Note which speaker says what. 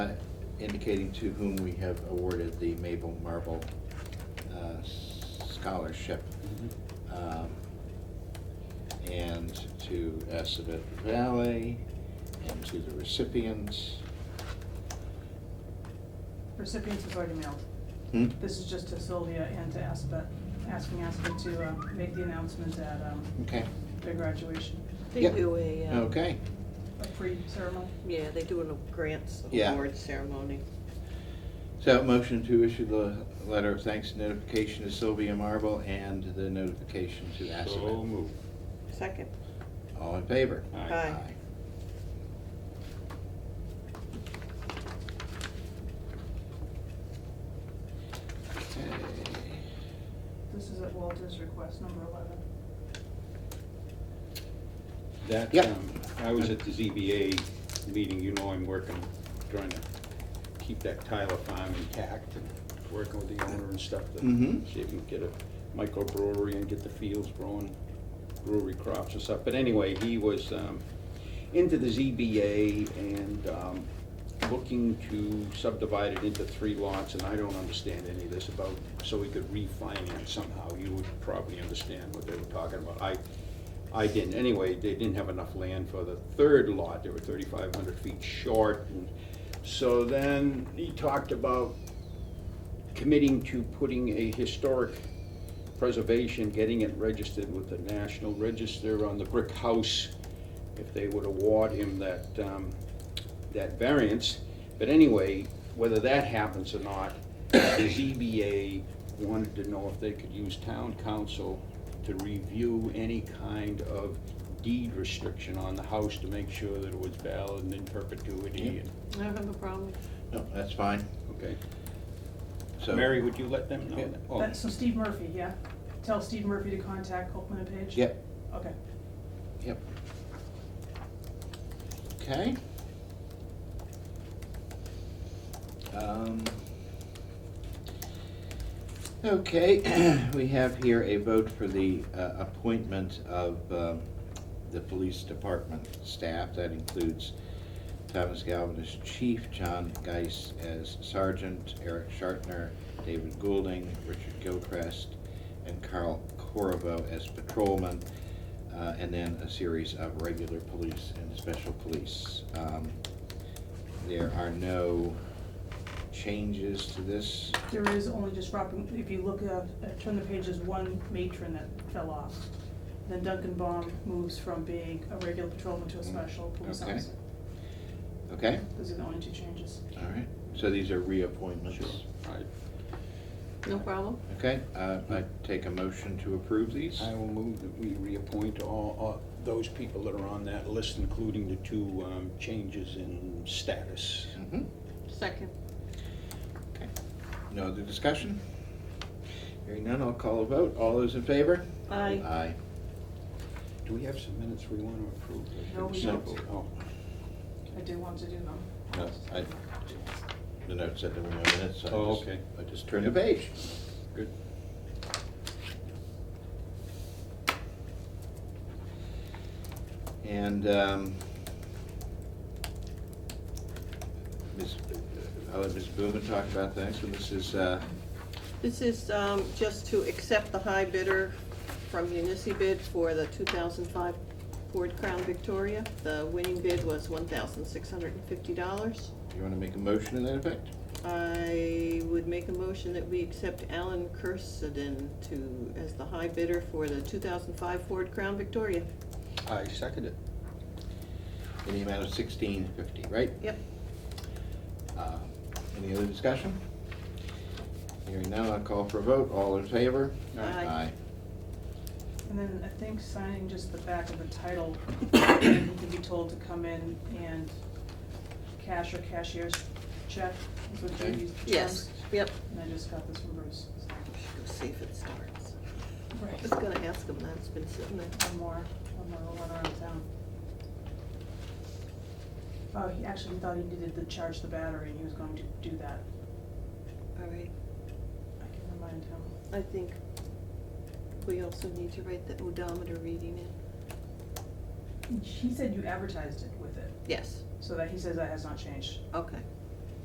Speaker 1: uh, indicating to whom we have awarded the Mabel Marble uh, Scholarship. um, And to Assabet Valley, and to the recipients.
Speaker 2: Recipients was already mailed.
Speaker 1: Hmm?
Speaker 2: This is just to Sylvia and to Aspet, asking Aspet to uh, make the announcement at um,
Speaker 1: Okay,
Speaker 2: their graduation,
Speaker 3: They
Speaker 1: Yep.
Speaker 3: do a, uh,
Speaker 1: okay.
Speaker 2: a pre-ceremony.
Speaker 3: yeah, they do a grants
Speaker 1: Yeah.
Speaker 3: award ceremony.
Speaker 1: So motion to issue the letter of thanks and notification to Sylvia Marble and the notification to
Speaker 4: So
Speaker 1: Assabet.
Speaker 4: move.
Speaker 3: Second,
Speaker 1: All in favor?
Speaker 3: Aye.
Speaker 1: Okay.
Speaker 2: This is at Walter's request, number 11.
Speaker 4: That,
Speaker 1: Yep.
Speaker 4: um, I was at the ZBA meeting, you know I'm working, trying to keep that Tyler farm intact and working with the owner and stuff to
Speaker 1: Mhm.
Speaker 4: see if we can get a microbrewery and get the fields growing brewery crops and stuff. But anyway, he was um, into the ZBA and um, looking to subdivide it into three lots, and I don't understand any of this about, so we could refinance somehow. You would probably understand what they were talking about. I, I didn't. Anyway, they didn't have enough land for the third lot. They were thirty-five hundred feet short. and So then he talked about committing to putting a historic preservation, getting it registered with the National Register on the brick house, if they would award him that, um, that variance. But anyway, whether that happens or not, the ZBA wanted to know if they could use town council to review any kind of deed restriction on the house to make sure that it was valid and in perpetuity, and,
Speaker 3: I don't have a problem.
Speaker 1: No, that's fine,
Speaker 4: okay?
Speaker 1: so.
Speaker 4: Mary, would you let them know
Speaker 1: Yeah.
Speaker 4: that? Oh,
Speaker 2: That's- So Steve Murphy, yeah? Tell Steve Murphy to contact Copeland and Page?
Speaker 1: Yep,
Speaker 2: Okay.
Speaker 1: yep. Okay. Um, Okay, we have here a vote for the uh, appointment of um, the police department staff. That includes Thomas Galvin as chief, John Geis as sergeant, Eric Shartner, David Goulding, Richard Gilchrist, and Carl Corvo as patrolman, uh, and then a series of regular police and special police. Um, There are no changes to this.
Speaker 2: There is only just dropping, if you look at, uh, turn the page, there's one matron that fell off. Then Duncan Baum moves from being a regular patrolman to a special police
Speaker 1: Mm. Okay.
Speaker 2: officer.
Speaker 1: Okay,
Speaker 2: Those are the only two changes.
Speaker 1: all right. So these are reappointments.
Speaker 4: Sure, I,
Speaker 3: No problem?
Speaker 1: Okay, uh, I take a motion to approve these.
Speaker 4: I will move that we reappoint all, all those people that are on that list, including the two um, changes in status.
Speaker 1: Mhm.
Speaker 3: Second,
Speaker 1: Okay. No other discussion? Hearing none, I'll call a vote. All those in favor?
Speaker 3: Aye.
Speaker 1: Aye.
Speaker 4: Do we have some minutes we want to approve?
Speaker 2: No, we
Speaker 1: don't.
Speaker 4: Oh,
Speaker 2: I do want to do them.
Speaker 1: No, I, the note said there were no minutes, so I
Speaker 4: Oh,
Speaker 1: just-
Speaker 4: okay.
Speaker 1: I just turned the page.
Speaker 4: good.
Speaker 1: And, um, Ms., I'll let Ms. Boomen talk about that, so this is, uh,
Speaker 3: this is um, just to accept the high bidder from Unicy bid for the 2005 Ford Crown Victoria. The winning bid was $1,650.
Speaker 1: do you wanna make a motion in that effect?
Speaker 3: I would make a motion that we accept Alan Kersadin to, as the high bidder for the 2005 Ford Crown Victoria.
Speaker 4: I second it.
Speaker 1: In the amount of sixteen fifty, right?
Speaker 3: Yep.
Speaker 1: Uh, Any other discussion? Hearing none, I'll call for a vote. All in favor?
Speaker 3: Aye.
Speaker 2: And then I think signing just the back of the title, and you can be told to come in and cash or cashier's check is what
Speaker 1: Okay.
Speaker 2: you use.
Speaker 3: Yes, yep.
Speaker 2: And I just got this from Bruce.
Speaker 3: We should Go see if it starts. I was
Speaker 2: Right.
Speaker 3: gonna ask him that, it's been sitting there.
Speaker 2: One more, one more, one around town. Oh, he actually thought he needed to charge the battery, and he was going to do that.
Speaker 3: All right,
Speaker 2: I can remind him.
Speaker 3: I think we also need to write the odometer reading in.
Speaker 2: He said you advertised it with it,
Speaker 3: Yes,
Speaker 2: so that he says that has not changed.
Speaker 3: okay.